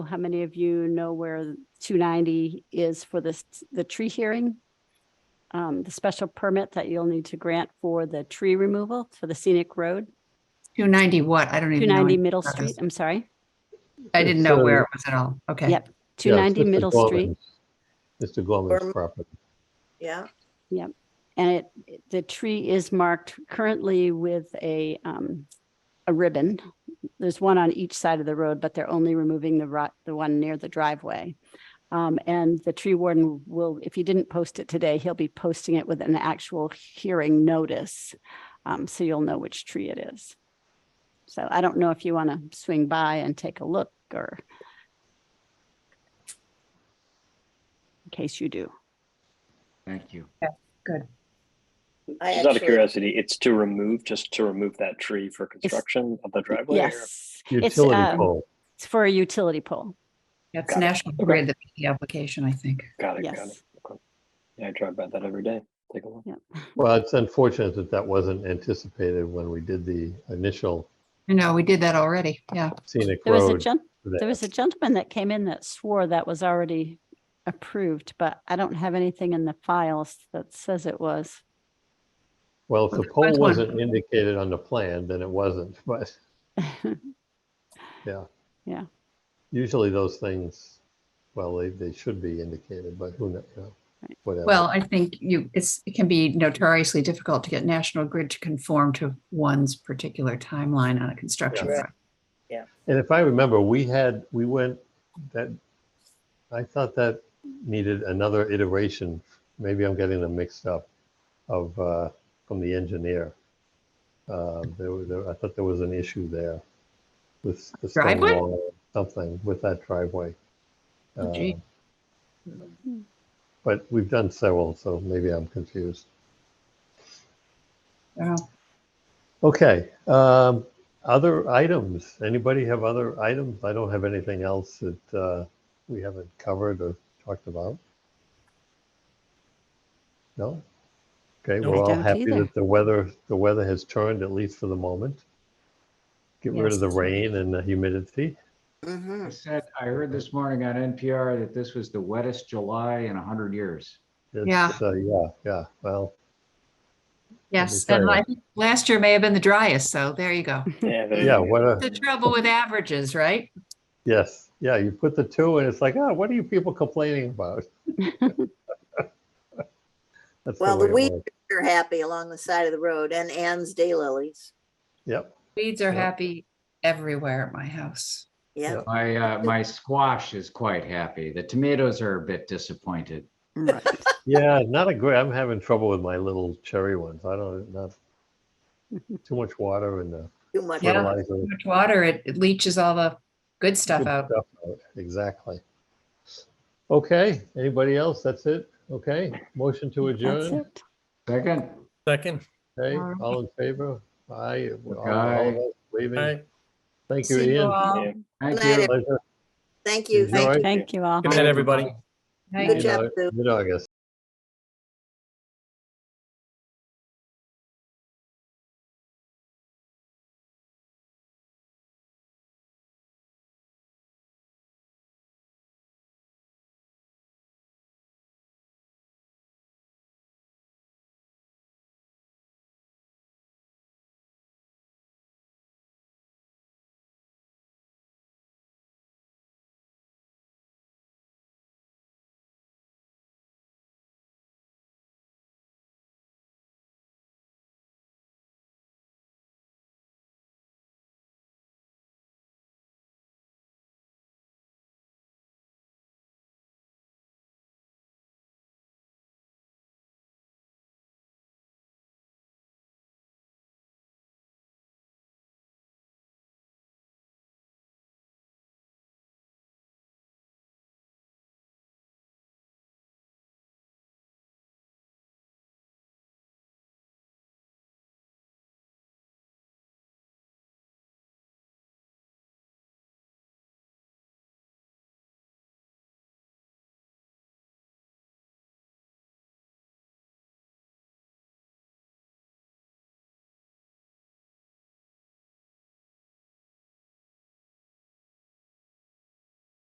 How many of you know where two ninety is for this, the tree hearing? Um, the special permit that you'll need to grant for the tree removal for the scenic road, 290 what? I don't two even know. ninety any- Middle that Street, is- I'm sorry, I didn't know It's, uh, where it was at all. Okay. Yep. two ninety Middle Street. Mr. Gorman's Gorman. property. Yeah, And it- it, the tree is marked currently with a, um, a ribbon. There's one on each side of the road, but they're only removing the ro the one near the driveway. Um, and the tree warden will, if he didn't post it today, he'll be posting it with an actual hearing notice. Um, so you'll know which tree it is. So I don't know if you want to swing by and take a look or in case you do. Thank you. I Just out of actually- curiosity, it's to remove, just to remove that tree for construction of the driveway? or- Yes. It's, Utility um, pole. It's for a utility pole. That's Got it. National Okay. Grid, that made the E application, I think. Got it, got it. Yes. Okay. Yeah, I drive by that every day. Take a look. Well, it's unfortunate that that wasn't anticipated when we did the initial I know, we did that already. Yeah. scenic There was a road. gent, there there. was a gentleman that came in that swore that was already approved, but I don't have anything in the files that says it was. Well, if the Okay, pole that's one. wasn't indicated on the plan, then it wasn't, but yeah. Yeah. Usually those things, well, they, they should be indicated, but who knows, you know, Right. whatever. Well, I think you, it's, it can be notoriously difficult to get National Grid to conform to one's particular timeline on a construction. Yeah. project. And if I remember, we had, we went, that, I thought that needed another iteration, maybe I'm getting them mixed up, of, uh, from the engineer. Uh, There was, there- I thought there was an issue there with the stone Driveway? wall, or something with that driveway. Oh, gee. Uh, But we've done several, so maybe I'm confused. Well, Okay, um, other items, anybody have other items? I don't have anything else that, uh, we haven't covered or talked about. No? Okay, No. we're I all don't happy either. that the weather, the weather has turned, at least for the moment. Get rid of the Yes. rain and the humidity. Mm-hmm. I said, I heard this morning on NPR that this was the wettest July in 100 years. It's, uh, Yeah, yeah, well, Yes, tell and you. I think last year may have been the driest, so there you go. Yeah, there you yeah, go. what a, The trouble with averages, right? yes, yeah, you put the two and it's like, ah, what are you people complaining about? That's Well, the way it weeds was. are happy along the side of the road and Anne's daylilies. Yep, Weeds are Yeah. happy everywhere at my house. Yeah, Yeah. My, uh, my squash is quite happy. The tomatoes are a bit disappointed. Right. Yeah, not a great, I'm having trouble with my little cherry ones. I don't, not too much water and the too much. Yeah. fertilizer. Too much water, it it leaches all the good stuff Good out. stuff out. Exactly. Okay, anybody else? That's it? Okay, motion to That's adjourn. it. Second, Second. Hey, All right. all in favor? Aye. all- all Aye. of us Aye. Waving. Thank you, See you Ian. all. Yeah. thank Good night, you. Pleasure. Thank you. Enjoy. Thank you. Thank you all. Good night, everybody. Night. Good Mid- job, Sue. Mid-August.